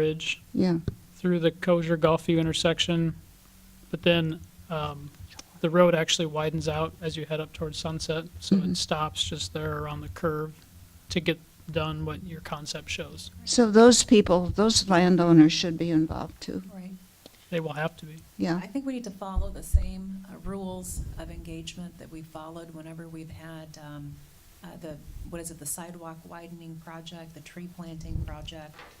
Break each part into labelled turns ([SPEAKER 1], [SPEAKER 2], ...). [SPEAKER 1] Bridge
[SPEAKER 2] Yeah,
[SPEAKER 1] through the Kosher Golfview intersection, but then um, the road actually widens out as you head up towards Sunset, so it stops just there around the curve to get done what your concept shows.
[SPEAKER 2] so those people, those landowners should be involved too,
[SPEAKER 3] Right.
[SPEAKER 1] They will have to be.
[SPEAKER 2] yeah.
[SPEAKER 3] I think we need to follow the same uh, rules of engagement that we followed whenever we've had um, uh, the, what is it, the sidewalk widening project, the tree planting project. I-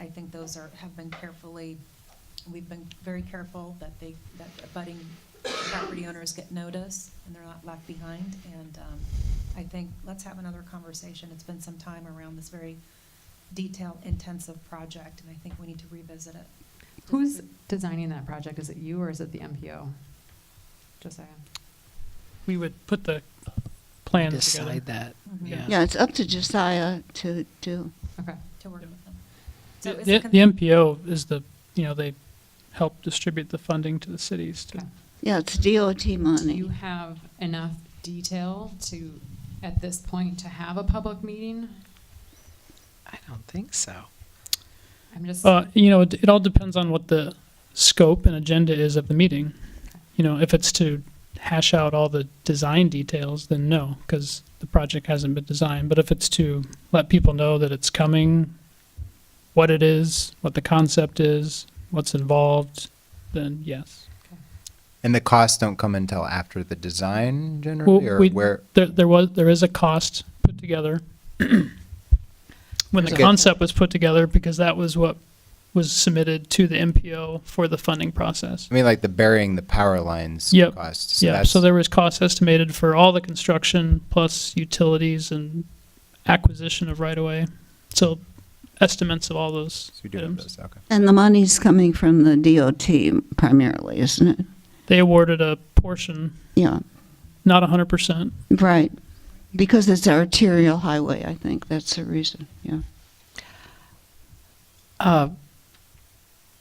[SPEAKER 3] I think those are, have been carefully, we've been very careful that they, that abutting property owners get notice and they're not left behind. And um, I think, let's have another conversation. It's been some time around this very detailed, intensive project, and I think we need to revisit it.
[SPEAKER 4] Who's designing that project? Is it you or is it the MPO? Josiah?
[SPEAKER 1] We would put the plans together.
[SPEAKER 5] decide that.
[SPEAKER 3] Mhm.
[SPEAKER 5] Yeah.
[SPEAKER 2] Yeah, it's up to Josiah to do,
[SPEAKER 4] Okay.
[SPEAKER 3] to work with them. So
[SPEAKER 1] The
[SPEAKER 3] is
[SPEAKER 1] the
[SPEAKER 3] it con-
[SPEAKER 1] MPO is the, you know, they help distribute the funding to the cities to
[SPEAKER 4] Okay.
[SPEAKER 2] yeah, it's DOT
[SPEAKER 4] Do you
[SPEAKER 2] money.
[SPEAKER 4] have enough detail to, at this point, to have a public meeting?
[SPEAKER 5] I don't think so.
[SPEAKER 4] I'm just,
[SPEAKER 1] Uh, you know, it, it all depends on what the scope and agenda is of the meeting. You know, if it's to hash out all the design details, then no, because the project hasn't been designed. But if it's to let people know that it's coming, what it is, what the concept is, what's involved, then yes.
[SPEAKER 6] And the costs don't come until after the design
[SPEAKER 1] Well,
[SPEAKER 6] generally, or
[SPEAKER 1] we-
[SPEAKER 6] where?
[SPEAKER 1] There, there was, there is a cost put together. When the
[SPEAKER 6] Okay.
[SPEAKER 1] concept was put together, because that was what was submitted to the MPO for the funding process.
[SPEAKER 6] I mean, like the burying the power lines
[SPEAKER 1] Yep.
[SPEAKER 6] costs.
[SPEAKER 1] Yeah,
[SPEAKER 6] that's-
[SPEAKER 1] so there was cost estimated for all the construction plus utilities and acquisition of right-of-way. So estimates of all those
[SPEAKER 6] so we do have
[SPEAKER 1] items.
[SPEAKER 6] those, okay.
[SPEAKER 2] And the money's coming from the DOT primarily, isn't it?
[SPEAKER 1] They awarded a portion,
[SPEAKER 2] Yeah,
[SPEAKER 1] not hundred percent.
[SPEAKER 2] right, because it's arterial highway, I think, that's the reason, yeah.
[SPEAKER 5] Uh,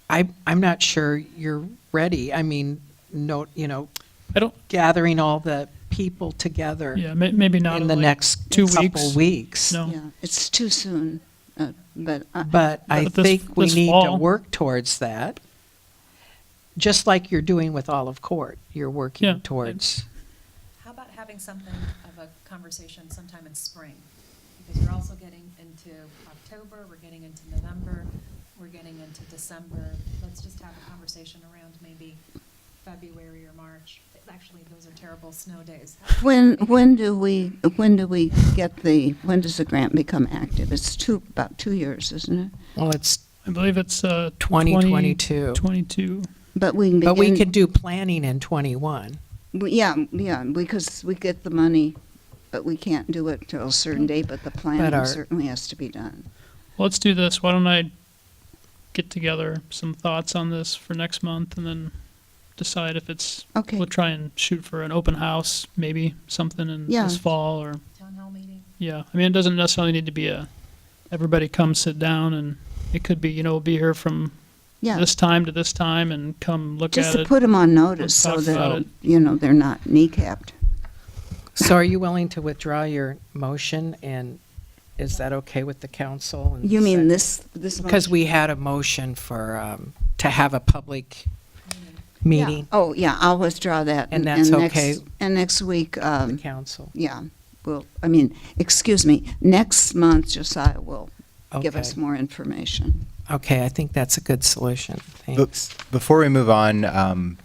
[SPEAKER 5] I, I'm not sure you're ready. I mean, no, you know,
[SPEAKER 1] I don't,
[SPEAKER 5] gathering all the people together
[SPEAKER 1] yeah, may, maybe not.
[SPEAKER 5] in the
[SPEAKER 1] like-
[SPEAKER 5] next
[SPEAKER 1] two
[SPEAKER 5] couple
[SPEAKER 1] weeks.
[SPEAKER 5] weeks.
[SPEAKER 1] No.
[SPEAKER 2] Yeah, it's too soon, uh, but, I-
[SPEAKER 5] But I
[SPEAKER 1] But this-
[SPEAKER 5] think we
[SPEAKER 1] this
[SPEAKER 5] need to
[SPEAKER 1] fall-
[SPEAKER 5] work towards that, just like you're doing with Olive Court. You're
[SPEAKER 1] Yeah.
[SPEAKER 5] working towards.
[SPEAKER 3] How about having something of a conversation sometime in spring? Because you're also getting into October, we're getting into November, we're getting into December. Let's just have a conversation around maybe February or March. Actually, those are terrible snow days.
[SPEAKER 2] when, when do we, when do we get the, when does the grant become active? It's two, about two years, isn't it?
[SPEAKER 5] Well, it's
[SPEAKER 1] I believe it's, uh. 20
[SPEAKER 5] 2022.
[SPEAKER 1] Twenty-two.
[SPEAKER 2] But we can begin.
[SPEAKER 5] But we could do planning in 21.
[SPEAKER 2] We- Yeah, yeah, because we get the money, but we can't do it till a certain date, but the
[SPEAKER 5] But
[SPEAKER 2] planning
[SPEAKER 5] our-
[SPEAKER 2] certainly has to be done.
[SPEAKER 1] Well, Let's do this. Why don't I get together some thoughts on this for next month and then decide if it's,
[SPEAKER 2] Okay,
[SPEAKER 1] we'll try and shoot for an open house, maybe something in
[SPEAKER 2] Yeah.
[SPEAKER 1] this fall or
[SPEAKER 3] Town hall meeting?
[SPEAKER 1] Yeah, I mean, it doesn't necessarily need to be a, everybody come sit down and it could be, you know, be here from
[SPEAKER 2] yeah,
[SPEAKER 1] this time to this time and come look
[SPEAKER 2] just
[SPEAKER 1] at
[SPEAKER 2] to
[SPEAKER 1] it.
[SPEAKER 2] put them on notice so
[SPEAKER 1] talk about
[SPEAKER 2] that,
[SPEAKER 1] it.
[SPEAKER 2] you know, they're not kneecapped.
[SPEAKER 5] So are you willing to withdraw your motion, and is that okay with the council? and
[SPEAKER 2] You mean
[SPEAKER 5] second?
[SPEAKER 2] this, this?
[SPEAKER 5] Because
[SPEAKER 2] motion?
[SPEAKER 5] we had a motion for, um, to have a public
[SPEAKER 2] Yeah.
[SPEAKER 5] meeting,
[SPEAKER 2] Oh, yeah, I'll withdraw that.
[SPEAKER 5] And that's
[SPEAKER 2] next-
[SPEAKER 5] okay.
[SPEAKER 2] And next week,
[SPEAKER 5] the
[SPEAKER 2] um,
[SPEAKER 5] council.
[SPEAKER 2] yeah, well, I mean, excuse me, next month Josiah will give
[SPEAKER 5] Okay.
[SPEAKER 2] us more information.
[SPEAKER 5] Okay, I think that's a good solution.
[SPEAKER 6] But
[SPEAKER 5] Thanks.
[SPEAKER 6] before we move on, um,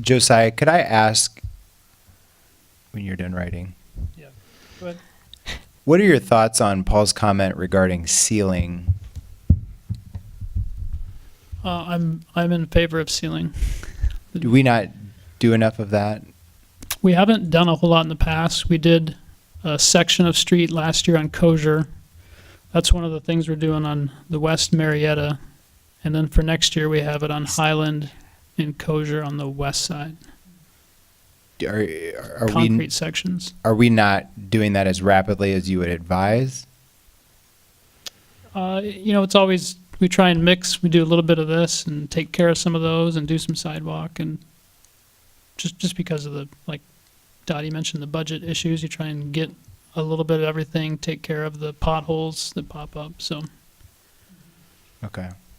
[SPEAKER 6] Josiah, could I ask when you're done writing,
[SPEAKER 1] Yeah. Go ahead.
[SPEAKER 6] what are your thoughts on Paul's comment regarding sealing?
[SPEAKER 1] Uh, I'm, I'm in favor of sealing.
[SPEAKER 6] Do we not do enough of that?
[SPEAKER 1] We haven't done a whole lot in the past. We did a section of street last year on Kosher. That's one of the things we're doing on the West Marietta. And then for next year, we have it on Highland and Kosher on the west side,
[SPEAKER 6] Do- Are, are we
[SPEAKER 1] concrete sections.
[SPEAKER 6] are we not doing that as rapidly as you would advise?
[SPEAKER 1] Uh, you know, it's always, we try and mix, we do a little bit of this and take care of some of those and do some sidewalk and just, just because of the, like Dottie mentioned, the budget issues, you try and get a little bit of everything, take care of the potholes that pop up, so.
[SPEAKER 6] Okay.